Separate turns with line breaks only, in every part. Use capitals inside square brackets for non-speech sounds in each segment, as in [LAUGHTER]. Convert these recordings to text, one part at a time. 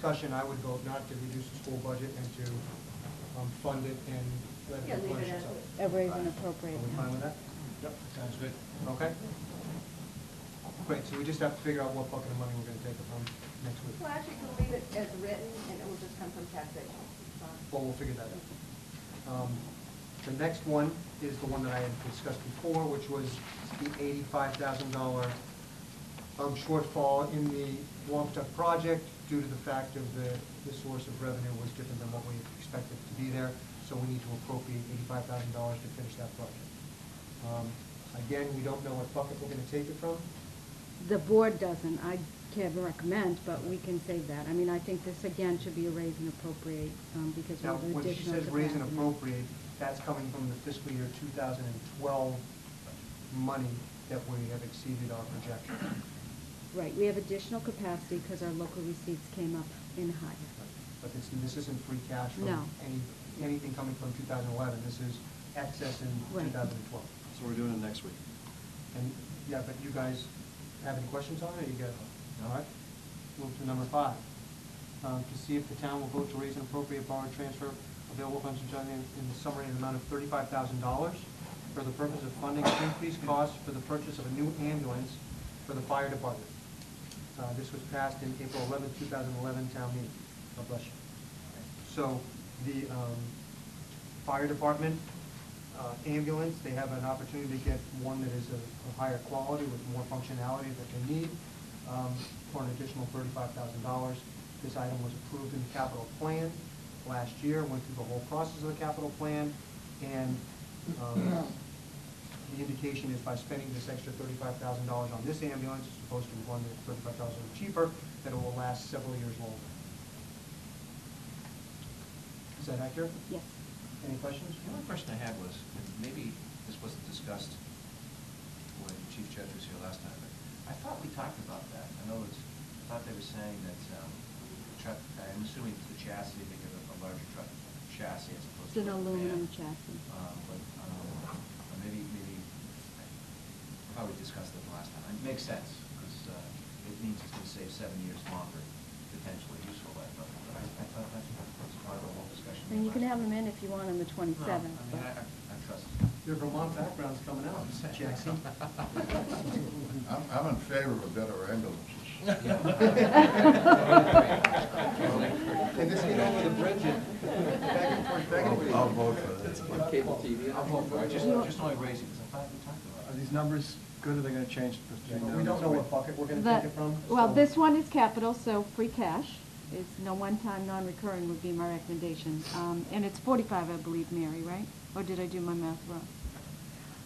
discussion, I would vote not to reduce the school budget and to um, fund it and let
Yeah,
it
leave it
replenish
as
itself.
is. Mm-hmm.
a raise and
Are
appropriate.
we fine with that? Yep,
Sounds good.
okay. Great, so we just have to figure out what bucket of money we're gonna take it from next week.
Well, actually, we'll leave it as written, and it will just come from taxation. It's fine.
Well, we'll figure that out. Um, The next one is the one that I had discussed before, which was the eighty-five thousand dollar um, shortfall in the Wampatuck project due to the fact of the, the source of revenue was different than what we expected to be there, so we need to appropriate eighty-five thousand dollars to finish that project. Um, Again, we don't know what bucket we're gonna take it from.
The board doesn't, I can't recommend, but we can save that. I mean, I think this again should be a raise and appropriate, um, because we
Now,
have
when
additional
she
capacity.
says raise and appropriate, that's coming from the fiscal year 2012 money that we have exceeded our projection.
Right, we have additional capacity because our local receipts came up in higher.
But this, this isn't free cash from
No.
any, anything coming from 2011. This is excess in
Right.
2012.
So we're doing it next week.
And, yeah, but you guys have any questions on it? You got, all right? Move to number five. Um, To see if the town will vote to raise an appropriate borrow and transfer available funds from John in in the summary in the amount of thirty-five thousand dollars for the purpose of funding increased costs for the purchase of a new ambulance for the fire department. Uh, This was passed in April eleventh, two thousand eleven town meeting. God bless you. So the um, fire department, uh, ambulance, they have an opportunity to get one that is of of higher quality with more functionality that they need um, for an additional thirty-five thousand dollars. This item was approved in the capital plan last year, went through the whole process of the capital plan, and um, the indication is by spending this extra thirty-five thousand dollars on this ambulance, as opposed to one that's thirty-five thousand dollars cheaper, that it will last several years longer. Is that accurate?
Yes.
Any questions?
The only question I had was, and maybe this wasn't discussed when Chief Judge was here last time, but I thought we talked about that. In other words, I thought they were saying that um, the truck, I'm assuming it's the chassis, they give a- a larger truck chassis as opposed
It's
to.
an
a van.
aluminum chassis.
Um, But um, or maybe, maybe, I probably discussed it last time. It makes sense, because it means it's going to save seven years longer, potentially useful life. But I I thought that was part of the whole discussion.
And you can
last
have them
time.
in if you want on the
No, I mean,
twenty-seventh, but.
I, I I trust.
Your Vermont background's coming out, [LAUGHS] Jackson.
[LAUGHS]
I'm, I'm in favor of better [LAUGHS] ambulances.
[LAUGHS]
[LAUGHS]
Can this get over the bridge and back and forth, back and forth?
I'll I'll vote for this.
Cable TV.
I'm hoping, I just,
You-
just only raising, because I thought we talked
Are
about it.
these numbers good, or they gonna change
Yeah,
between
but
now and
We don't
next
know
week?
what bucket we're gonna
The-
take it from.
Well,
so-
this one is capital, so free cash is no one-time, non-recurring would be my recommendation. Um, And it's 45, I believe, Mary, right? Or did I do my math wrong?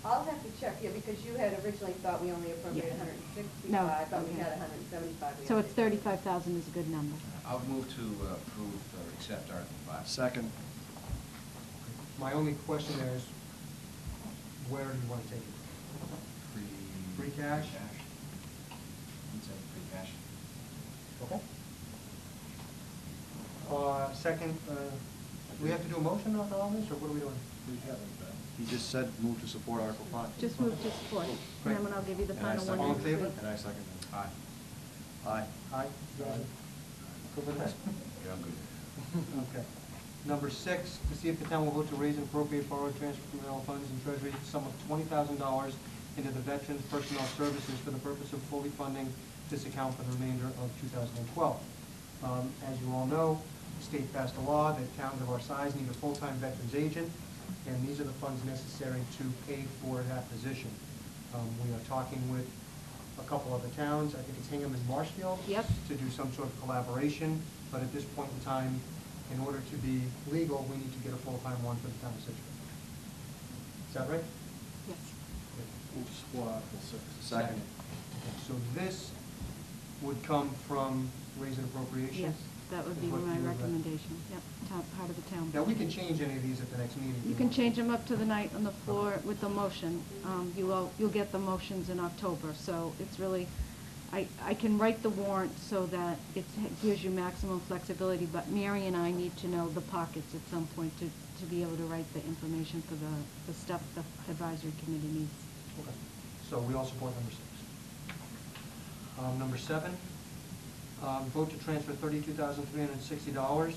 I'll have to check, yeah, because you had originally thought we only appropriated
Yeah.
hundred and
No,
sixty-five, but we
okay.
had hundred and seventy-five.
So it's 35,000 is a good number.
I'll move to uh, approve or accept Article Five.
Uh, Second,
My only question there is, where do you wanna take it?
Free.
Free cash?
It's a free cash.
Okay. Uh, second, uh, we have to do a motion on all this, or what are we doing?
he just said move to support Article Five.
Just move to support, and then I'll give you the
And I
final one
second-
next week.
All in favor?
And I second that.
Aye.
Aye.
Aye. Good with that?
Yeah, I'm good.
Okay. Number six, to see if the town will vote to raise and appropriate borrowed transfer from general funds and treasury the sum of twenty thousand dollars into the Veterans Personnel Services for the purpose of fully funding this account for the remainder of two thousand and twelve. Um, as you all know, the state passed a law that towns of our size need a full-time veterans agent, and these are the funds necessary to pay for that position. Um, we are talking with a couple other towns, I think it's Hingham and Marshfield
Yep.
to do some sort of collaboration, but at this point in time, in order to be legal, we need to get a full-time one for the town of Situate. Is that right?
Yes.
Move to support Article Six. Second.
So this would come from raise and appropriations?
Yes, that would be
Is what
my
you would rec-
recommendation, yep, top, part of the town.
Now, we can change any of these at the next meeting.
You can change them up to the night on the floor with the motion. Um, You will, you'll get the motions in October, so it's really, I, I can write the warrant so that it gives you maximum flexibility, but Mary and I need to know the pockets at some point to, to be able to write the information for the, the stuff the advisory committee needs.
Okay. So we all support number six. Um, number seven, Um, Vote to transfer thirty-two thousand three hundred and sixty dollars